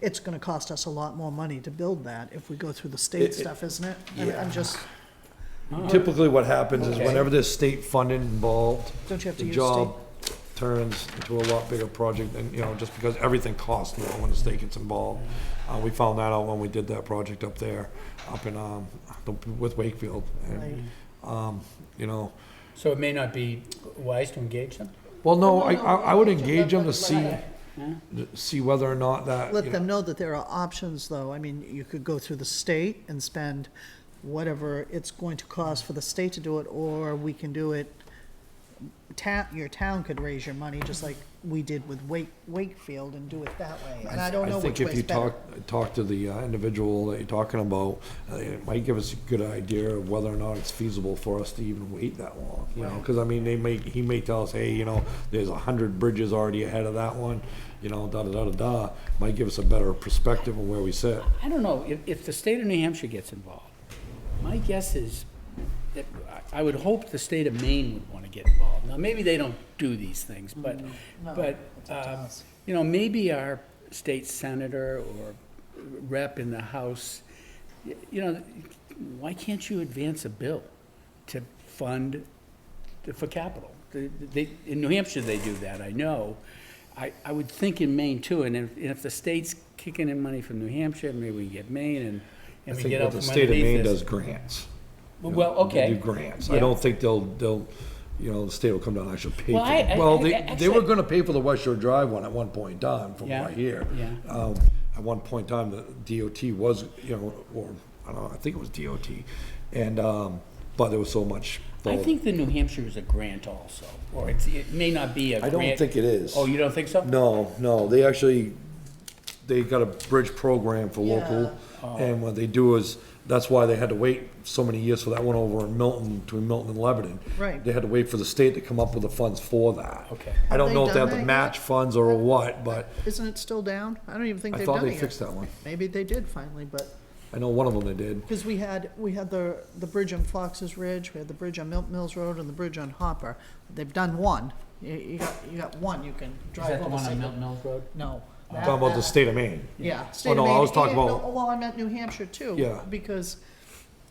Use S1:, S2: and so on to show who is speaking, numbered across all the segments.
S1: it's gonna cost us a lot more money to build that if we go through the state
S2: it-
S1: stuff, isn't it? I'm-
S2: yeah.
S1: I'm just,
S2: Typically, what happens is
S3: Okay.
S2: whenever there's state funding involved,
S1: Don't you have to
S2: the
S1: use
S2: job turns into a lot bigger project than, you know, just because everything costs more when the state gets involved. Uh, we found that out when we did that project up there, up in, um, the- with Wakefield. And, um, you know,
S3: So it may not be wise to engage them?
S2: well, no,
S1: No,
S2: I,
S1: no,
S2: I I would
S1: no, no,
S2: engage them
S1: no,
S2: to see, see whether or not that.
S1: let
S2: you know-
S1: them know that there are options, though. I mean, you could go through the state and spend whatever it's going to cost for the state to do it, or we can do it, town, your town could raise your money, just like we did with Wake, Wakefield, and do it that way. And I don't know
S2: think
S1: which
S2: if
S1: way's
S2: you
S1: better.
S2: talk Talk to the uh, individual that you're talking about, uh, it might give us a good idea of whether or not it's feasible for us to even wait that long, you know? Because I mean, they may, he may tell us, hey, you know, there's a hundred bridges already ahead of that one, you know, da da da da da. Might give us a better perspective on where we sit.
S3: I don't know, if, if the state of New Hampshire gets involved, my guess is that, I- I would hope the state of Maine would want to get involved. Now, maybe they don't do these things, but, but, um, you know, maybe our state senator or rep in the House, y- you know, why can't you advance a bill to fund to- for capital. The- They, in New Hampshire, they do that, I know. I, I would think in Maine too, and if, and if the state's kicking in money from New Hampshire, maybe we get Maine and,
S2: I
S3: and we
S2: think
S3: get
S2: what
S3: out
S2: the
S3: from
S2: state of Maine
S3: underneath
S2: does
S3: this.
S2: grants. you know,
S3: Well, okay.
S2: They do grants. I
S3: Yeah.
S2: don't think they'll, they'll, you know, the state will come down and actually pay
S3: Well, I-
S2: for
S3: I-
S2: it. Well,
S3: I-
S2: they,
S3: I-
S2: they were
S3: actually-
S2: gonna pay for the West Shore Drive one at one point in time, from what I
S3: Yeah,
S2: hear.
S3: yeah.
S2: Um, at one point in time, the DOT was, you know, or, I don't know, I think it was DOT, and, um, but there was so much.
S3: I
S2: vol-
S3: think the New Hampshire is a grant also, or it's, it may not be a
S2: I
S3: grant.
S2: don't think it is.
S3: Oh, you don't think so?
S2: No, no, they actually, they got a bridge program for local, and what they do is, that's why they had to wait so many years for that one over in Milton, between Milton and Lebanon.
S1: Right.
S2: They had to wait for the state to come up with the funds for that.
S3: Okay.
S2: I
S1: Have
S2: don't know
S1: they
S2: if they
S1: done
S2: have
S1: that
S2: the
S1: yet?
S2: match funds or what, but
S1: Isn't it still down? I don't even think
S2: I
S1: they've
S2: thought
S1: done
S2: they
S1: it
S2: fixed
S1: yet.
S2: that one.
S1: Maybe they did finally, but,
S2: I know one of them they did.
S1: because we had, we had the, the bridge on Fox's Ridge, we had the bridge on Milton Mills Road, and the bridge on Hopper. They've done one. You, you got, you got one you can
S3: Is
S1: drive
S3: that
S1: over.
S3: the one
S1: Safely.
S3: on Milton Oh. Mills Road?
S1: No. that-
S2: Talking about the
S1: that-
S2: state of Maine.
S1: Yeah. state of
S2: no, I
S1: Maine
S2: was talking
S1: and-
S2: about-
S1: Well, I meant New Hampshire too.
S2: Yeah.
S1: Because,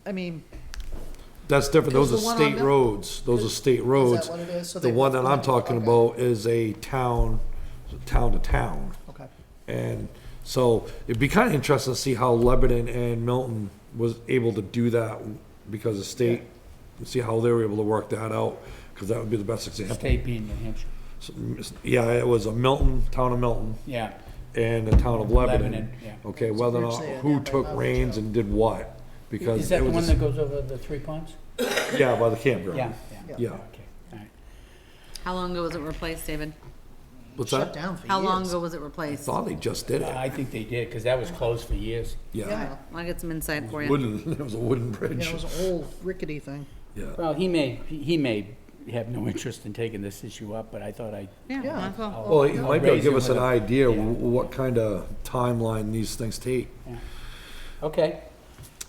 S1: I mean,
S2: That's different, those are
S1: Because the one on
S2: state
S1: Mil-
S2: roads, those are state roads.
S1: what it is? So
S2: The
S1: they-
S2: one that I'm talking
S1: okay.
S2: about is a town, town to town.
S1: okay,
S2: And so it'd be kind of interesting to see how Lebanon and Milton was able to do that because of state, and see how they were able to work that out, because that would be the best example.
S3: State being New Hampshire,
S2: So, Yeah, it was a Milton, town of Milton,
S3: yeah.
S2: and the town of Lebanon.
S3: Lebanon, yeah.
S2: Okay, whether or not,
S1: It's a bridge there, yeah,
S2: who
S1: by
S2: took
S1: Lebanon,
S2: reins
S1: yeah.
S2: and did what, because.
S3: Is that
S2: it
S3: the
S2: was
S3: one
S2: a-
S3: that goes over the three ponds?
S2: Yeah, by the campground.
S3: Yeah,
S1: Yeah.
S3: yeah.
S2: Yeah.
S3: Okay, all right.
S4: How long ago was it replaced, David?
S2: What's
S1: shut
S2: that?
S1: down for years.
S4: How long ago was it replaced?
S2: Thought they just did it,
S3: I think they did, because that was closed for years.
S2: yeah.
S1: Yeah.
S4: I'll get some insight for you.
S2: Wooden, it was a wooden
S1: Yeah,
S2: bridge,
S1: it was an old rickety thing.
S2: yeah.
S3: Well, he may, he may have no interest in taking this issue up, but I thought I,
S4: Oh, Yeah,
S1: Yeah.
S4: might as well.
S2: Well, it might be able to give
S3: Raise
S2: us an
S3: it with a-
S2: idea
S3: yeah.
S2: wh- what kind of timeline these things take.
S3: okay.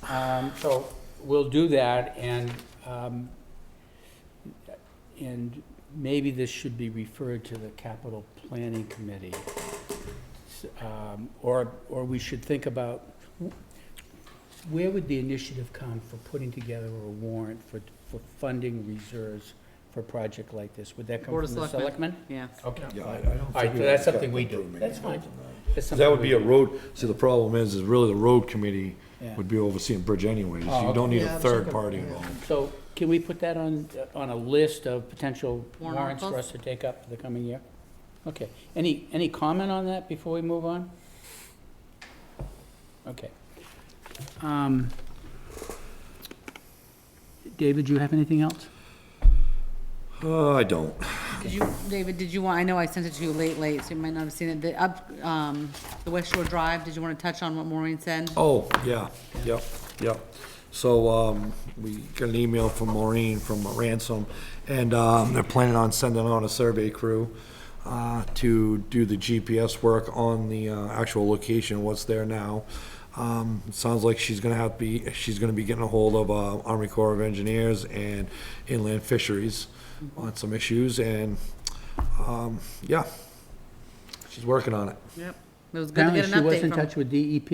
S3: Um, So we'll do that and, um, and maybe this should be referred to the capital planning committee. S- um, Or, or we should think about, wh- where would the initiative come for putting together a warrant for, for funding reserves for a project like this? Would that come
S4: Board of
S3: from the
S4: Selectmen.
S3: selectmen?
S4: Yeah.
S3: Okay.
S2: Yeah, I- I
S3: fine.
S2: don't
S3: All right,
S2: think
S3: so
S2: we
S3: that's
S2: cut
S3: something we
S2: that
S3: do.
S2: room
S3: That's fine. That's
S2: So
S3: something
S2: That would
S3: we
S2: be a
S3: do.
S2: road, see, the problem is, is really the road committee
S3: Yeah.
S2: would be overseeing bridge anyways.
S3: Oh,
S2: You don't need
S1: Yeah,
S2: a
S1: I'm sure
S2: third
S1: could-
S2: party
S1: yeah.
S2: involved.
S3: So can we put that on, on a list of potential
S4: Warrant
S3: warrants for
S4: articles?
S3: us to take up for the coming year? Okay. Any, any comment on that before we move on? Okay. Um, David, do you have anything else?
S2: Uh, I don't.
S4: Did you, David, did you want, I know I sent it to you late, late, so you might not have seen it. The up, um, the West Shore Drive, did you want to touch on what Maureen said?
S2: Oh, yeah, yep, yep. So, um, we got an email from Maureen from Ransom, and, um, they're planning on sending on a survey crew, uh, to do the GPS work on the, uh, actual location, what's there now. Um, it sounds like she's gonna have to be, she's gonna be getting a hold of, uh, Army Corps of Engineers and Inland Fisheries on some issues, and, um, yeah, she's working on it.
S4: Yep. It was good to
S3: Apparently
S4: get an update
S3: she
S4: from
S3: was in touch with E DEP